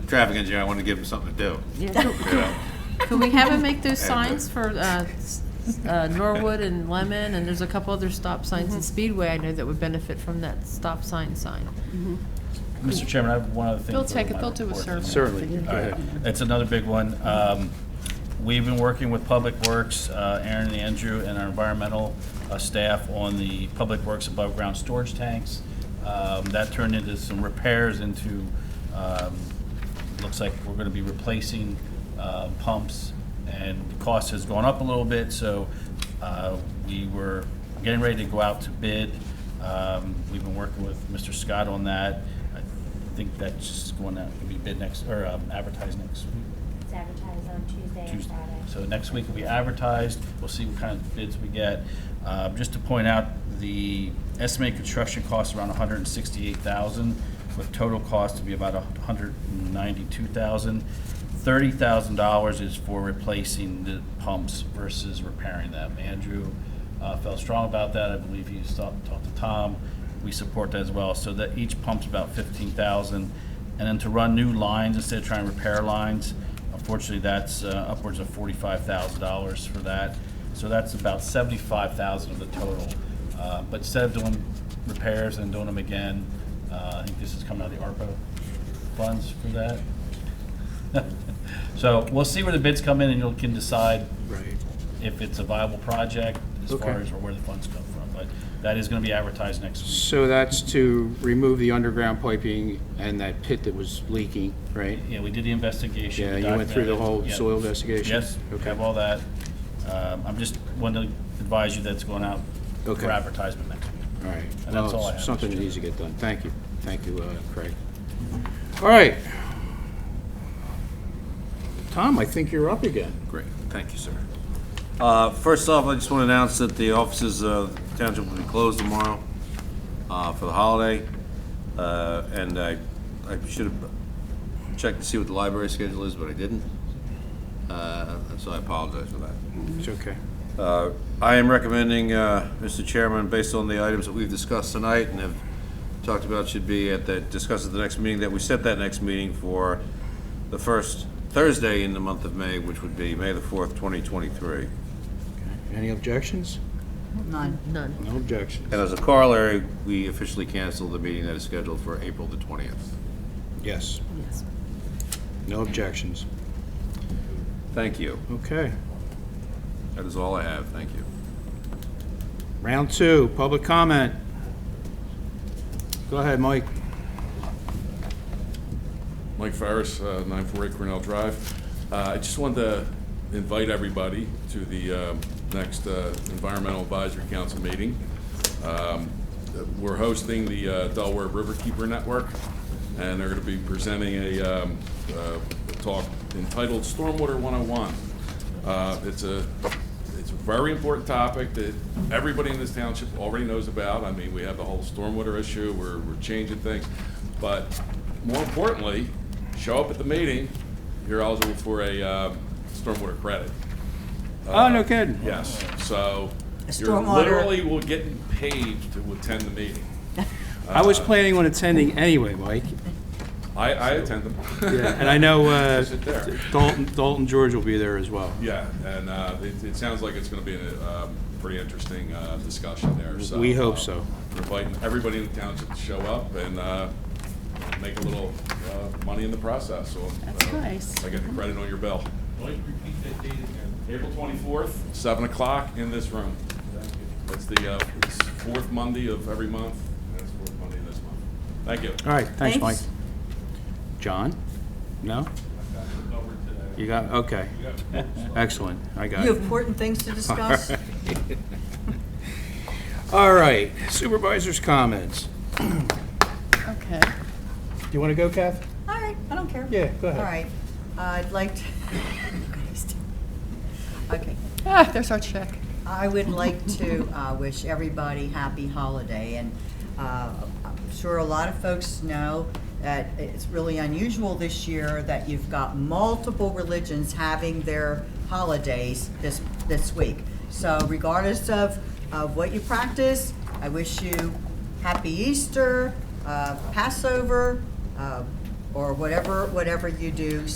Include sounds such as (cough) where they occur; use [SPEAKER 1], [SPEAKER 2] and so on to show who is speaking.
[SPEAKER 1] traffic engineer, I wanted to give him something to do. you know.
[SPEAKER 2] Could we have him make those signs for uh, s- uh, Norwood and Lemon, and there's a couple other stop signs in Speedway I know that would benefit from that stop sign sign.
[SPEAKER 3] Mr. Chairman, I have one other thing.
[SPEAKER 2] They'll
[SPEAKER 3] for
[SPEAKER 2] take it,
[SPEAKER 3] my
[SPEAKER 2] they'll do a
[SPEAKER 3] report.
[SPEAKER 2] survey.
[SPEAKER 3] All right, that's another big one. Um, We've been working with Public Works, uh, Aaron and Andrew, and our environmental uh, staff on the Public Works above-ground storage tanks. Um, That turned into some repairs into, um, looks like we're going to be replacing uh, pumps, and the cost has gone up a little bit, so uh, we were getting ready to go out to bid. Um, We've been working with Mr. Scott on that. I I think that's just going to be bid next, or um, advertised next week,
[SPEAKER 4] It's advertised on Tuesday and
[SPEAKER 3] Tuesday.
[SPEAKER 4] Friday.
[SPEAKER 3] So next week will be advertised, we'll see what kind of bids we get. Uh, Just to point out, the estimated construction cost around 168,000, with total cost to be about 192,000. $30,000 is for replacing the pumps versus repairing them. Andrew uh, felt strong about that, I believe he's talked talked to Tom, we support that as well. So that each pump's about 15,000. And then to run new lines instead of trying to repair lines, Unfortunately, that's uh, upwards of forty-five thousand dollars for that. So that's about seventy-five thousand of the total. Uh, But instead of doing repairs and doing them again, uh, I think this is coming out of the ARPA funds for that. (laughs) So we'll see where the bids come in and you can decide if it's a viable project as
[SPEAKER 5] Okay.
[SPEAKER 3] far as where the funds come from. But that is going to be advertised next week.
[SPEAKER 5] So that's to remove the underground piping and that pit that was leaking, right?
[SPEAKER 3] Yeah, we did the investigation.
[SPEAKER 5] Yeah,
[SPEAKER 3] we
[SPEAKER 5] you went through the whole
[SPEAKER 3] documented it. Yeah.
[SPEAKER 5] soil investigation?
[SPEAKER 3] Yes,
[SPEAKER 5] Okay.
[SPEAKER 3] have all that. Um, I'm just wanted to advise you that's going out
[SPEAKER 5] Okay.
[SPEAKER 3] for advertisement next week.
[SPEAKER 5] All right.
[SPEAKER 3] And that's
[SPEAKER 5] Well,
[SPEAKER 3] all I have,
[SPEAKER 5] Something
[SPEAKER 3] Mr.
[SPEAKER 5] that needs to get done. Thank you. Thank you, uh, Craig. All right. Tom, I think you're up again.
[SPEAKER 1] Great, thank you, sir. Uh, First off, I just want to announce that the offices of the township will be closed tomorrow uh, for the holiday. Uh, And I, I should have checked to see what the library schedule is, but I didn't. Uh, So I apologize for that.
[SPEAKER 5] It's okay.
[SPEAKER 1] Uh, I am recommending, uh, Mr. Chairman, based on the items that we've discussed tonight and have talked about should be at that, discussed at the next meeting, that we set that next meeting for the first Thursday in the month of May, which would be May the 4th, 2023.
[SPEAKER 5] Any objections?
[SPEAKER 2] None. None.
[SPEAKER 5] No objections.
[SPEAKER 1] And as a corollary, we officially cancel the meeting that is scheduled for April the 20th.
[SPEAKER 5] Yes.
[SPEAKER 2] Yes.
[SPEAKER 5] No objections.
[SPEAKER 1] Thank you.
[SPEAKER 5] Okay.
[SPEAKER 1] That is all I have. Thank you.
[SPEAKER 5] Round two, public comment. Go ahead, Mike.
[SPEAKER 6] Mike Farris, uh, 948 Cornell Drive. Uh, I just wanted to invite everybody to the um, next uh, Environmental Advisory Council meeting. Um, We're hosting the uh, Delaware Riverkeeper Network, and they're going to be presenting a um, uh, a talk entitled Stormwater 101. Uh, It's a, it's a very important topic that everybody in this township already knows about. I mean, we have the whole stormwater issue, we're we're changing things, but more importantly, show up at the meeting, you're eligible for a um, stormwater credit.
[SPEAKER 3] Uh,
[SPEAKER 1] Uh,
[SPEAKER 6] Uh,
[SPEAKER 5] Oh, no kidding.
[SPEAKER 6] Yes, so you
[SPEAKER 7] stormwater-
[SPEAKER 6] literally will get paid to attend the meeting.
[SPEAKER 5] I was planning on attending anyway, Mike,
[SPEAKER 6] I, I attend them.
[SPEAKER 5] and I
[SPEAKER 6] (laughs)
[SPEAKER 5] know uh,
[SPEAKER 6] Sit there.
[SPEAKER 5] Dalton, Dalton George will be there as well.
[SPEAKER 6] Yeah, and uh, it, it sounds like it's going to be a um, pretty interesting uh, discussion there, so.
[SPEAKER 5] We hope
[SPEAKER 6] uh,
[SPEAKER 5] so.
[SPEAKER 6] We're inviting everybody in the township to show up and uh, make a little uh, money in the process, so. That's nice. I get the credit on your bill. April twenty-fourth, seven o'clock in this room. It's the, uh, it's fourth Monday of every month, and it's fourth Monday of this month. Thank you.
[SPEAKER 5] All right, thanks, Mike.
[SPEAKER 7] Thanks.
[SPEAKER 5] John? No? You got, okay. Excellent, I got
[SPEAKER 7] You
[SPEAKER 5] it.
[SPEAKER 7] have important things
[SPEAKER 5] (laughs)
[SPEAKER 7] to discuss?
[SPEAKER 5] All right, supervisor's comments.
[SPEAKER 2] Okay.
[SPEAKER 5] Do you want to go, Kath?
[SPEAKER 7] All right, I don't care.
[SPEAKER 5] Yeah, go ahead.
[SPEAKER 7] All right, I'd like to, (laughs) okay.
[SPEAKER 2] Ah, there's our check.
[SPEAKER 7] I would like to uh, wish everybody happy holiday, and uh, I'm sure a lot of folks know that it's really unusual this year that you've got multiple religions having their holidays this, this week. So regardless of, of what you practice, I wish you happy Easter, uh, Passover, uh, or whatever, whatever you do,